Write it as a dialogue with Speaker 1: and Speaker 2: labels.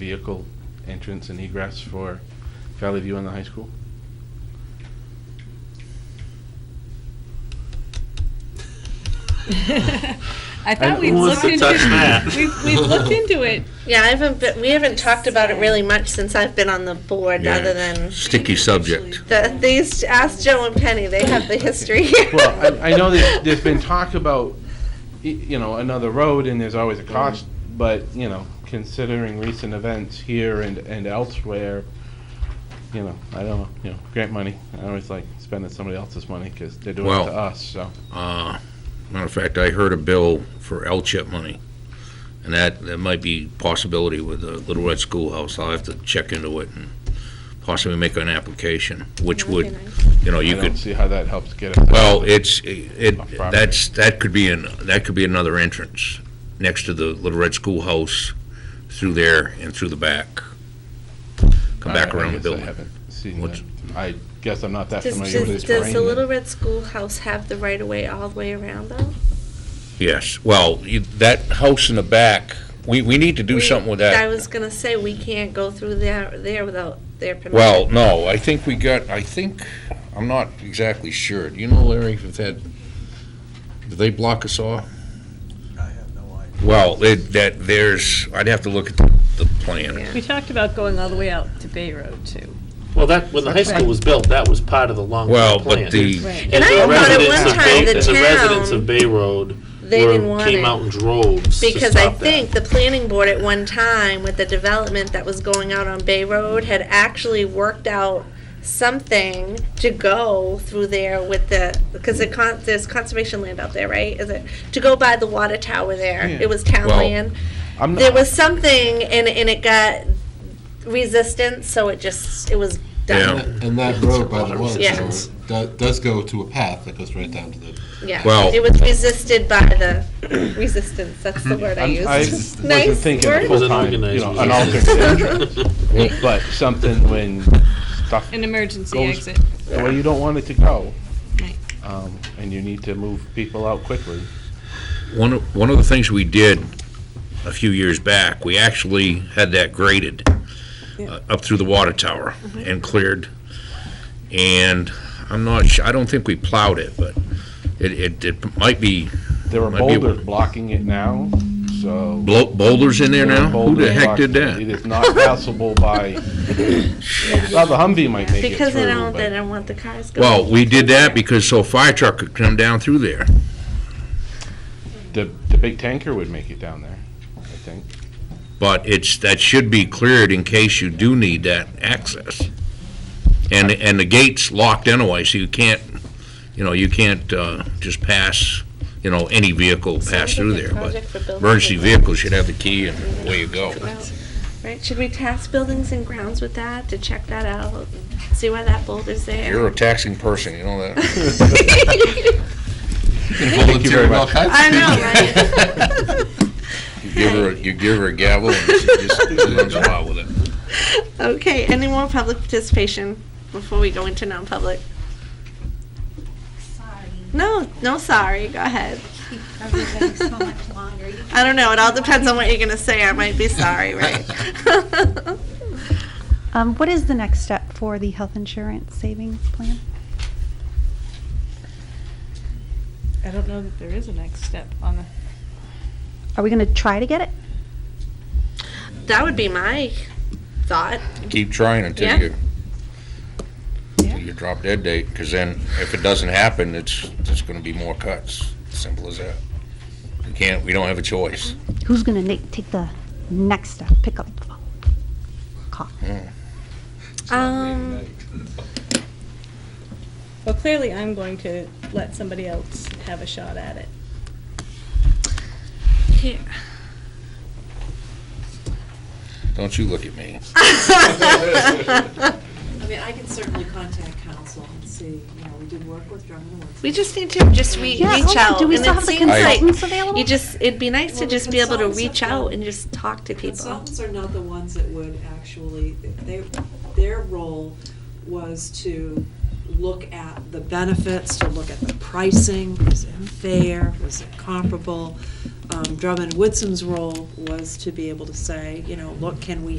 Speaker 1: vehicle entrance and egress for Valley View and the high school?
Speaker 2: I thought
Speaker 1: I-
Speaker 2: we'd
Speaker 1: who wants
Speaker 2: looked into
Speaker 1: to touch that?
Speaker 2: We've, we've looked into it.
Speaker 3: Yeah, I haven't, been- we haven't talked about it really much since I've been on the board,
Speaker 4: Yeah.
Speaker 3: other than
Speaker 4: Sticky subject.
Speaker 3: the, these, ask Joe and Penny, they have the history.
Speaker 1: Well, I, I know there's, there's been talk about, y- you know, another road and there's always a cost, but, you know, considering recent events here and, and elsewhere, you know, I don't know, you know, grant money, I always like spending somebody else's money because they're doing it
Speaker 4: Well-
Speaker 1: to us, so.
Speaker 4: Uh, Matter of fact, I heard a bill for L-chip money, and that, that might be possibility with the Little Red Schoolhouse. I'll have to check into it and possibly make an application, which
Speaker 3: That'd
Speaker 4: would,
Speaker 3: be
Speaker 4: you know,
Speaker 1: I
Speaker 4: you
Speaker 1: don't
Speaker 4: could,
Speaker 1: see how that helps get us.
Speaker 4: well, it's, it,
Speaker 1: Off property.
Speaker 4: that's, that could be an, that could be another entrance next to the Little Red Schoolhouse through there and through the back. Come back
Speaker 1: Uh, I- I
Speaker 4: around the
Speaker 1: guess I
Speaker 4: building.
Speaker 1: haven't seen
Speaker 4: What's-
Speaker 1: that. I guess I'm not that
Speaker 3: Does,
Speaker 1: familiar with
Speaker 3: does,
Speaker 1: this
Speaker 3: does the
Speaker 1: terrain.
Speaker 3: Little Red Schoolhouse have the right of way all the way around though?
Speaker 4: Yes, well, you- that house in the back, we, we need to do
Speaker 3: We-
Speaker 4: something with
Speaker 3: I
Speaker 4: that.
Speaker 3: was gonna say, we can't go through there, there without their permission.
Speaker 4: Well, no, I think we got, I think, I'm not exactly sure. Do you know, Larry, if that, did they block us off?
Speaker 5: I have no idea.
Speaker 4: Well, it- that, there's, I'd have to look at the the plan.
Speaker 3: Yeah.
Speaker 2: We talked about going all the way out to Bay Road too.
Speaker 6: Well, that, when the high school was built, that was part of the long-term
Speaker 4: Well,
Speaker 6: plan.
Speaker 4: but the,
Speaker 2: Right.
Speaker 3: And
Speaker 6: As
Speaker 3: I
Speaker 6: the
Speaker 3: thought at
Speaker 6: residents
Speaker 3: one
Speaker 6: of
Speaker 3: time
Speaker 6: Bay-
Speaker 3: the
Speaker 6: As the residents
Speaker 3: town-
Speaker 6: of Bay Road
Speaker 3: They didn't
Speaker 6: were,
Speaker 3: want
Speaker 6: came out
Speaker 3: it.
Speaker 6: in droves to
Speaker 3: Because I
Speaker 6: stop that.
Speaker 3: think the planning board at one time with the development that was going out on Bay Road had actually worked out something to go through there with the, because the con, there's conservation land out there, right? Is it, to go by the water tower there.
Speaker 1: Yeah.
Speaker 3: It was town
Speaker 4: Well,
Speaker 3: land.
Speaker 1: I'm
Speaker 3: There
Speaker 1: not-
Speaker 3: was something and, and it got resistance, so it just, it was
Speaker 4: Yeah.
Speaker 3: done.
Speaker 7: And that road by the water
Speaker 3: Yeah.
Speaker 7: tower do- does go to a path that goes right down to the,
Speaker 3: Yeah.
Speaker 4: Well-
Speaker 3: It was resisted by the resistance, that's the word I
Speaker 1: I'm- I
Speaker 3: used.
Speaker 1: wasn't
Speaker 3: Nice
Speaker 1: thinking
Speaker 3: word.
Speaker 1: full
Speaker 6: Was an
Speaker 1: time, you
Speaker 6: organized
Speaker 1: know, an
Speaker 6: resistance.
Speaker 1: alternate entrance. But something when stuff
Speaker 2: An emergency
Speaker 1: Goes-
Speaker 2: exit.
Speaker 1: the way you don't want it to go.
Speaker 2: Right.
Speaker 1: Um, and you need to move people out quickly.
Speaker 4: one, of- one of the things we did a few years back, we actually had that graded uh, up through the water tower and cleared. And I'm not, su- I don't think we plowed it, but it, it, it might be
Speaker 1: There are
Speaker 4: Might be a-
Speaker 1: boulders blocking it now, so.
Speaker 4: blo- boulders in there
Speaker 1: there are
Speaker 4: now? Who the
Speaker 1: boulders
Speaker 4: heck did
Speaker 1: blocking it. It
Speaker 4: that?
Speaker 1: is not passable by, well, the Humvee might make it
Speaker 3: Because they
Speaker 1: through,
Speaker 3: don't, they
Speaker 1: but
Speaker 3: don't want the cars going.
Speaker 4: Well, we did that because so a fire truck could come down through there.
Speaker 1: the, the big tanker would make it down there, I think.
Speaker 4: But it's, that should be cleared in case you do need that access. And, and the gate's locked anyway, so you can't, you know, you can't uh, just pass, you know, any vehicle pass through there. But emergency vehicles should have the key and away you go.
Speaker 3: Right, should we task buildings and grounds with that to check that out, and see why that boulder's
Speaker 4: You're
Speaker 3: there?
Speaker 4: a taxing person, you know that.
Speaker 1: you very
Speaker 7: volunteering all
Speaker 1: much.
Speaker 7: kinds of
Speaker 3: I
Speaker 7: people.
Speaker 3: know, right?
Speaker 4: You give her, a- you give her a gavel and she just runs wild with it.
Speaker 3: Okay, any more public participation before we go into non-public? No, no, sorry, go ahead.
Speaker 8: everything so much longer. You
Speaker 3: I don't know, it all depends on what you're gonna say, I might be sorry, right?
Speaker 9: Um, what is the next step for the health insurance savings plan?
Speaker 2: I don't know that there is a next step on the.
Speaker 9: Are we going to try to get it?
Speaker 3: That would be my thought.
Speaker 4: Keep trying
Speaker 3: Yeah.
Speaker 4: until you,
Speaker 2: Yeah.
Speaker 4: until you drop dead date, because then if it doesn't happen, it's, there's gonna be more cuts. Simple as that. We can't, we don't have a choice.
Speaker 9: Who's going to take the next step? Pick up the phone. Call.
Speaker 4: Mm.
Speaker 3: Um,
Speaker 2: Well, clearly I'm going to let somebody else have a shot at it.
Speaker 3: here.
Speaker 4: Don't you look at me.
Speaker 10: I mean, I can certainly contact council and see, you know, we did work with Drummond and Woodson.
Speaker 3: We just need to just re-
Speaker 9: Yeah,
Speaker 3: reach
Speaker 9: oh,
Speaker 3: out.
Speaker 9: do we
Speaker 3: and
Speaker 9: still
Speaker 3: it
Speaker 9: have the
Speaker 3: seems like
Speaker 9: consultants available?
Speaker 3: You just, it'd be nice to
Speaker 10: Well, the
Speaker 3: just be able to
Speaker 10: consultants have
Speaker 3: reach out
Speaker 10: done-
Speaker 3: and just talk to people.
Speaker 10: Consultants are not the ones that would actually, they, their role was to look at the benefits, to look at the pricing, was it fair, was it comparable? Um, Drummond Woodson's role was to be able to say, you know, look, can we